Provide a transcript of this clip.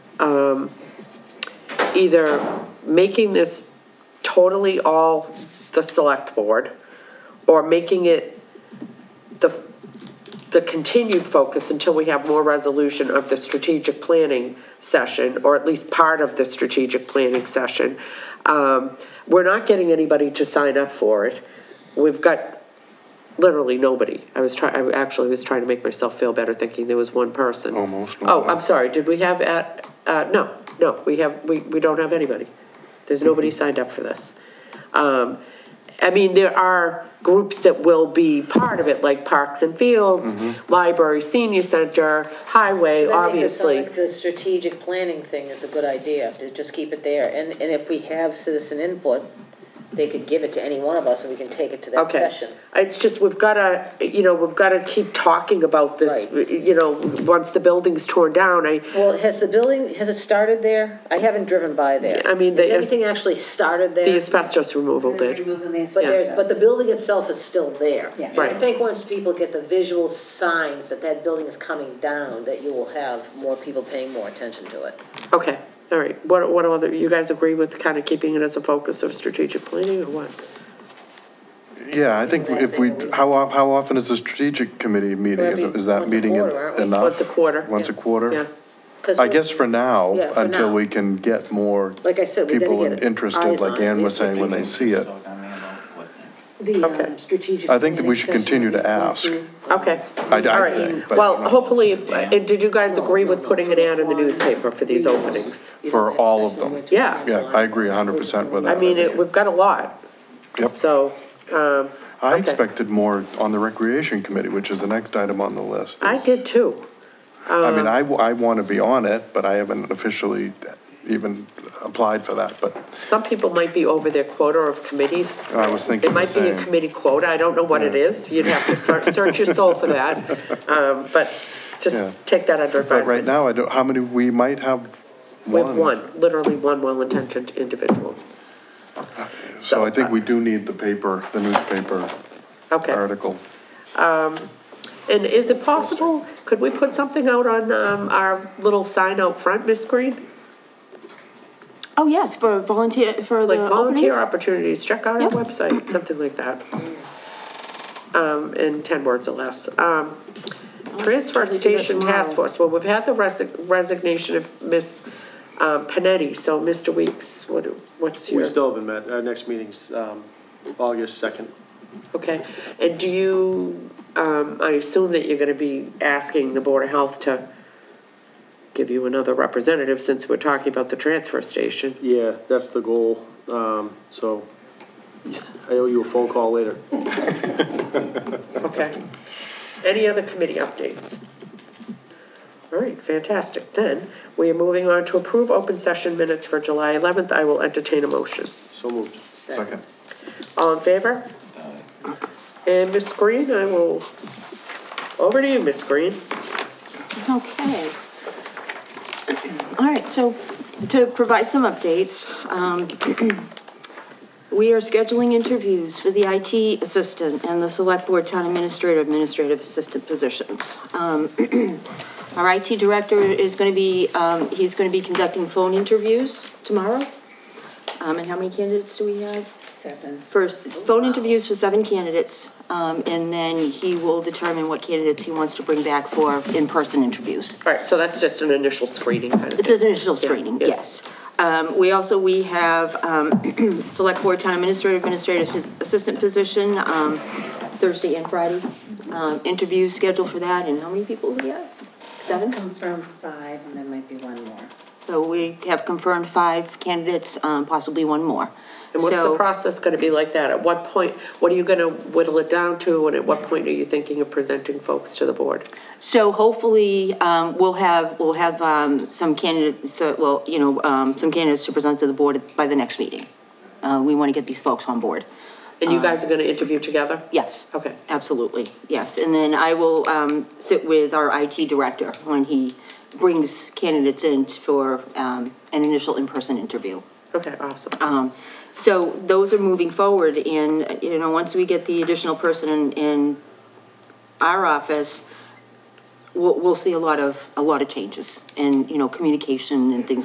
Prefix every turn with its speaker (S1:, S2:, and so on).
S1: um, either making this totally all the select board, or making it the, the continued focus until we have more resolution of the strategic planning session, or at least part of the strategic planning session. Um, we're not getting anybody to sign up for it. We've got literally nobody. I was trying, I actually was trying to make myself feel better thinking there was one person.
S2: Almost
S1: Oh,
S2: nobody.
S1: I'm sorry, did we have at, uh, no, no, we have, we, we don't have anybody. There's nobody signed up for this. Um, I mean, there are groups that will be part of it, like Parks and Fields, Library, Senior Center, Highway,
S3: That makes it sound
S1: obviously.
S3: like The strategic planning thing is a good idea, to just keep it there, and, and if we have citizen input, they could give it to any one of us, and we can take it to that
S1: Okay,
S3: session.
S1: it's just, we've gotta, you know, we've gotta keep talking about this,
S3: Right.
S1: you know, once the building's torn down, I,
S3: Well, has the building, has it started there? I haven't driven by there.
S1: Yeah, I mean,
S3: Has
S1: the-
S3: anything actually started there?
S1: the asbestos removal did.
S4: Removing the
S3: But there,
S4: asbestos.
S3: but the building itself is still there.
S4: Yeah.
S1: Right.
S3: And I think once people get the visual signs that that building is coming down, that you will have more people paying more attention to it.
S1: Okay, all right, what, what other, you guys agree with kind of keeping it as a focus of strategic planning or what?
S2: Yeah, I think if we, how, of- how often is the strategic committee meeting? Is
S3: Every-
S2: is that
S3: once a
S2: meeting en-
S3: quarter, aren't we?
S2: enough?
S1: Once a quarter,
S2: Uh, Once a
S1: yeah.
S2: quarter?
S1: Yeah,
S3: 'Cause
S2: I
S3: we're-
S2: guess for now,
S3: Yeah, for
S2: until
S3: now.
S2: we can get more
S3: Like I said, we gotta
S2: people
S3: get it-
S2: interested,
S3: eyes
S2: like
S3: on
S2: Ann
S3: it.
S2: was saying, when they see it.
S4: The
S1: Okay.
S4: um, strategic.
S2: I think that
S4: planning
S2: we should
S4: session
S2: continue to
S4: would be
S2: ask.
S4: to-
S1: okay.
S2: I- I
S1: All right.
S2: think, but-
S1: Well, hopefully, if- uh, did you guys agree with putting an ad in the newspaper for these openings?
S3: You know,
S2: For
S3: that
S2: all of
S3: session
S2: them.
S3: we're talking
S1: Yeah.
S2: Yeah,
S3: about.
S2: I agree hundred percent with
S1: I
S2: that.
S1: mean, it, we've got a lot,
S2: Yep.
S1: so, um,
S2: I
S1: okay.
S2: expected more on the recreation committee, which is the next item on the list.
S1: I did too.
S2: I
S3: uh,
S2: mean, I, want to be on it, but I haven't officially even applied for that, but
S1: Some people might be over their quota of committees.
S2: I was thinking
S1: It
S2: the
S1: might be
S2: same.
S1: a committee quota, I don't know what it is, you'd have to search, search your soul for that, um, but just
S2: Yeah.
S1: take that under
S2: But right
S1: advisement.
S2: now, I don't, how many, we might have
S1: We have
S2: one.
S1: one, literally one well-intentioned individual.
S2: So I think
S3: uh,
S2: we do need the paper, the newspaper
S1: Okay.
S2: article.
S1: And is it possible, could we put something out on, um, our little sign out front, Miss Green?
S5: Oh, yes, for volunteer, for the
S1: Like volunteer
S5: openings?
S1: opportunities, check out our
S5: Yep.
S1: website, something like that. Um, in ten words or less. Um, transfer
S5: Probably do that
S1: station task
S5: tomorrow.
S1: force, well, we've had the resi- resignation of Miss, um, Panetti, so Mr. Weeks, what, do- what's your?
S6: We still haven't met. Our next meeting's um, August 2nd.
S1: Okay, and do you, um, I assume that you're gonna be asking the Board of Health to give you another representative since we're talking about the transfer station?
S6: Yeah, that's the goal. Um, So I owe you a phone call later.
S1: Okay. Any other committee updates? All right, fantastic. Then, we are moving on to approve open session minutes for July 11th. I will entertain a motion.
S6: So moved.
S2: Second.
S1: All in favor? And Ms. Green, I will, over to you, Ms. Green.
S5: Okay. All right, so to provide some updates, um, we are scheduling interviews for the IT assistant and the select board town administrator, administrative assistant positions. Um, our IT director is gonna be, um, he's gonna be conducting phone interviews tomorrow. Um, and how many candidates do we have?
S4: Seven.
S5: first, phone interviews for seven candidates, um, and then he will determine what candidates he wants to bring back for in-person interviews.
S1: All right, so that's just an initial screening kind of
S5: It's
S1: thing.
S5: an initial screening,
S1: yeah.
S5: yes. Um, we also, we have, um, select board town administrator, administrative assistant position, um, Thursday and Friday. Um, interviews scheduled for that, and how many people do we have? Seven?
S4: Confirmed five, and there might be one more.
S5: So we have confirmed five candidates, um, possibly one more.
S1: And what's the
S5: So-
S1: process gonna be like that? At what point, what are you gonna whittle it down to, and at what point are you thinking of presenting folks to the board?
S5: So hopefully, um, we'll have, we'll have, um, some candidates, so, well, you know, um, some candidates to present to the board by the next meeting. Uh, we want to get these folks on board.
S1: And you guys are gonna interview together?
S5: Yes.
S1: Okay.
S5: Absolutely, yes. And then I will, um, sit with our IT director when he brings candidates in for, um, an initial in-person interview.
S1: Okay, awesome.
S5: Um, so those are moving forward and, you know, once we get the additional person in, in our office, we'll, we'll see a lot of, a lot of changes and, you know, communication and things